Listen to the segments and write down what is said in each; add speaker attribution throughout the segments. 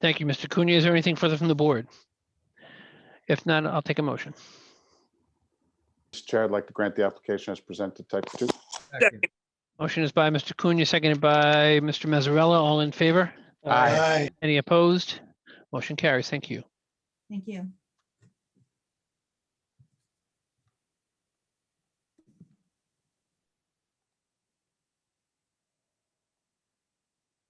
Speaker 1: Thank you, Mr. Cunha. Is there anything further from the board? If not, I'll take a motion.
Speaker 2: Mr. Chair, I'd like to grant the application as presented type two.
Speaker 3: Second.
Speaker 1: Motion is by Mr. Cunha, seconded by Mr. Mazzarella. All in favor?
Speaker 2: Aye.
Speaker 1: Any opposed? Motion carries. Thank you.
Speaker 4: Thank you.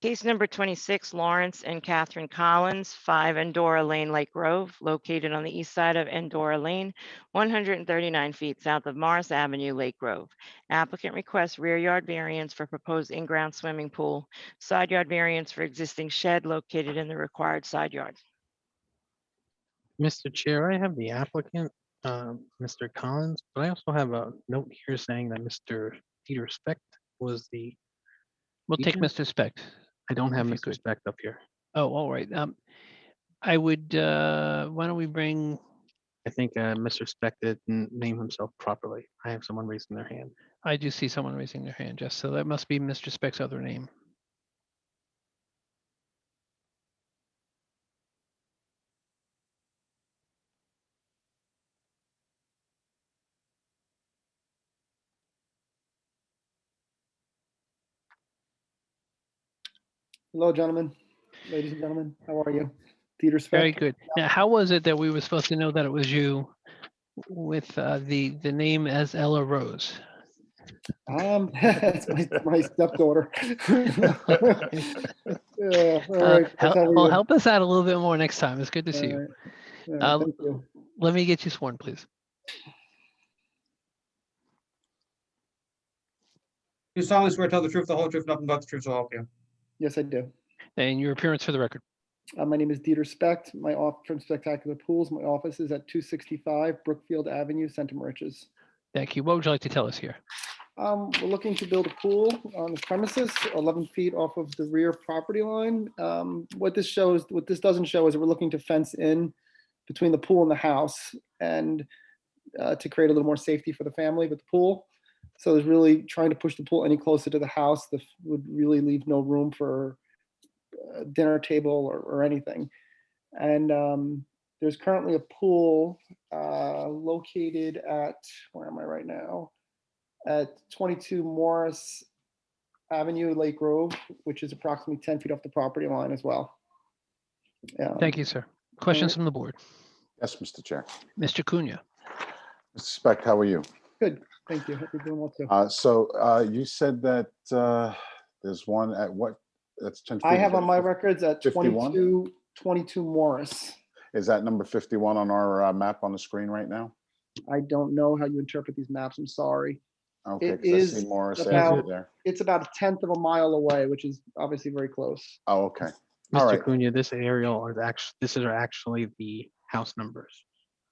Speaker 5: Case number 26, Lawrence and Catherine Collins, 5 Endora Lane, Lake Grove, located on the east side of Endora Lane, 139 feet south of Morris Avenue, Lake Grove. Applicant requests rear yard variance for proposed in-ground swimming pool, side yard variance for existing shed located in the required side yard.
Speaker 3: Mr. Chair, I have the applicant, uh, Mr. Collins, but I also have a note here saying that Mr. Peter Specht was the,
Speaker 1: We'll take
Speaker 3: Ethan?
Speaker 1: Mr. Speck.
Speaker 3: I don't have
Speaker 1: If you
Speaker 3: Mr.
Speaker 1: could.
Speaker 3: Specht up here.
Speaker 1: Oh, all right. Um, I would, uh, why don't we bring,
Speaker 3: I think uh, Mr. Specht didn't name himself properly. I have someone raising their hand.
Speaker 1: I do see someone raising their hand, Jess, so that must be Mr. Speck's other name.
Speaker 6: Hello, gentlemen, ladies and gentlemen, how are you? Peter
Speaker 1: Very
Speaker 6: Speck,
Speaker 1: good. Now, how was it that we were supposed to know that it was you with uh, the, the name as Ella Rose?
Speaker 6: um, that's my, my stepdaughter. Yeah, all
Speaker 1: Uh,
Speaker 6: right, that's how
Speaker 1: hel-
Speaker 6: we
Speaker 1: Well,
Speaker 6: do.
Speaker 1: help us out a little bit more next time. It's good to see
Speaker 6: All
Speaker 1: you.
Speaker 6: right, all right,
Speaker 1: Uh,
Speaker 6: thank you.
Speaker 1: Let me get you sworn, please.
Speaker 7: Do solemnly swear to tell the truth, the whole truth, nothing but the truth, so help you.
Speaker 6: Yes, I do.
Speaker 1: And your appearance for the record.
Speaker 6: Uh, my name is Dieter Specht, my off from Spectacular Pools, my office is at two sixty-five Brookfield Avenue, Santa Maria.
Speaker 1: Thank you. What would you like to tell us here?
Speaker 6: Um, we're looking to build a pool on the premises, eleven feet off of the rear property line. Um, what this shows, what this doesn't show is that we're looking to fence in between the pool and the house and uh, to create a little more safety for the family with the pool. So there's really trying to push the pool any closer to the house that would really leave no room for uh, dinner table or, or anything. And um, there's currently a pool uh, located at, where am I right now? at 22 Morris Avenue, Lake Grove, which is approximately 10 feet off the property line as well. Yeah.
Speaker 1: Thank you, sir. Questions
Speaker 6: right.
Speaker 1: from the board?
Speaker 2: Yes, Mr. Chair.
Speaker 1: Mr. Cunha,
Speaker 2: Mr. Speck, how are you?
Speaker 6: Thank you. Hope you're doing well too.
Speaker 2: Uh, So uh, you said that uh, there's one at what? That's 10.
Speaker 6: I
Speaker 2: feet,
Speaker 6: have
Speaker 2: is
Speaker 6: on
Speaker 2: that
Speaker 6: my
Speaker 2: 50
Speaker 6: records at
Speaker 2: 51?
Speaker 6: 22, 22 Morris.
Speaker 2: Is that number 51 on our uh, map on the screen right now?
Speaker 6: I don't know how you interpret these maps. I'm sorry.
Speaker 2: Okay,
Speaker 6: It
Speaker 2: 'cause I see
Speaker 6: is
Speaker 2: Morris
Speaker 6: about-
Speaker 2: Ave there.
Speaker 6: It's about a tenth of a mile away, which is obviously very close.
Speaker 2: Oh, okay. All
Speaker 3: Mr.
Speaker 2: right.
Speaker 3: Cunha, this aerial is actually, this is actually the house numbers.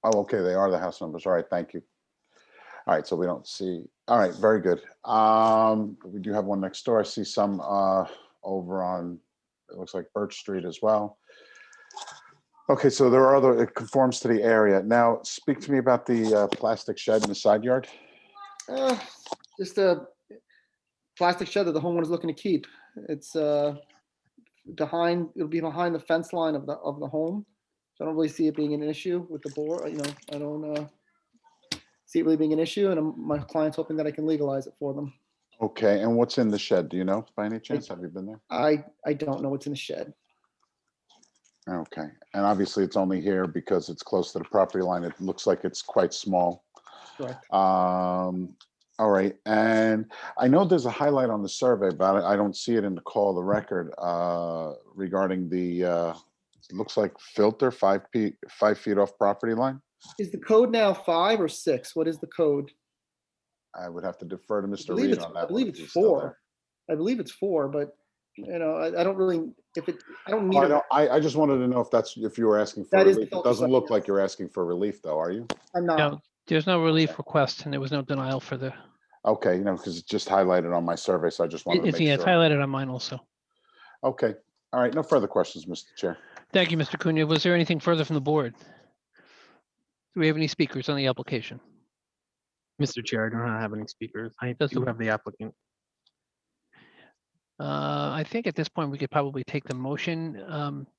Speaker 2: Oh, okay, they are the house numbers. All right, thank you. All right, so we don't see, all right, very good. Um, we do have one next door. I see some uh over on, it looks like Birch Street as well. Okay, so there are other, it conforms to the area. Now, speak to me about the uh plastic shed in the side yard.
Speaker 6: Uh, just a plastic shed that the homeowner's looking to keep. It's uh, behind, it'll be behind the fence line of the, of the home. So I don't really see it being an issue with the board, you know, I don't uh, see it really being an issue and I'm- my client's hoping that I can legalize it for them.
Speaker 2: Okay, and what's in the shed? Do you know by any chance? Have you been there?
Speaker 6: I, I don't know what's in the shed.
Speaker 2: Okay, and obviously it's only here because it's close to the property line. It looks like it's quite small.
Speaker 6: Correct.
Speaker 2: Um, all right, and I know there's a highlight on the survey, but I I don't see it in the call of the record, uh, regarding the, uh, it looks like filter five feet, five feet off property line.
Speaker 6: Is the code now five or six? What is the code?
Speaker 2: I would have to defer to
Speaker 6: I
Speaker 2: Mr.
Speaker 6: believe
Speaker 2: Reed
Speaker 6: it's,
Speaker 2: on that.
Speaker 6: I
Speaker 2: one
Speaker 6: believe
Speaker 2: if
Speaker 6: it's
Speaker 2: he's still there.
Speaker 6: four. I believe it's four, but you know, I, I don't really, if it, I don't need.
Speaker 2: Oh, I
Speaker 6: a-
Speaker 2: don't- I, I just wanted to know if that's, if you were asking for
Speaker 6: That is the
Speaker 2: relief. It
Speaker 6: filter
Speaker 2: doesn't
Speaker 6: side,
Speaker 2: look
Speaker 6: yes.
Speaker 2: like you're asking for relief though, are you?
Speaker 6: I'm not.
Speaker 1: No, there's no relief request and there was no denial for the,
Speaker 2: Okay, you know, because it's just highlighted on my survey, so I just wanted to
Speaker 1: it's, yeah,
Speaker 2: make
Speaker 1: it's
Speaker 2: sure.
Speaker 1: highlighted on mine also.
Speaker 2: Okay, all right, no further questions, Mr. Chair.
Speaker 1: Thank you, Mr. Cunha. Was there anything further from the board? Do we have any speakers on the application?
Speaker 3: Mr. Chair, I do not have any speakers. I
Speaker 1: That's
Speaker 3: do
Speaker 1: okay.
Speaker 3: have the applicant.
Speaker 1: Uh, I think at this point, we could probably take the motion. Um,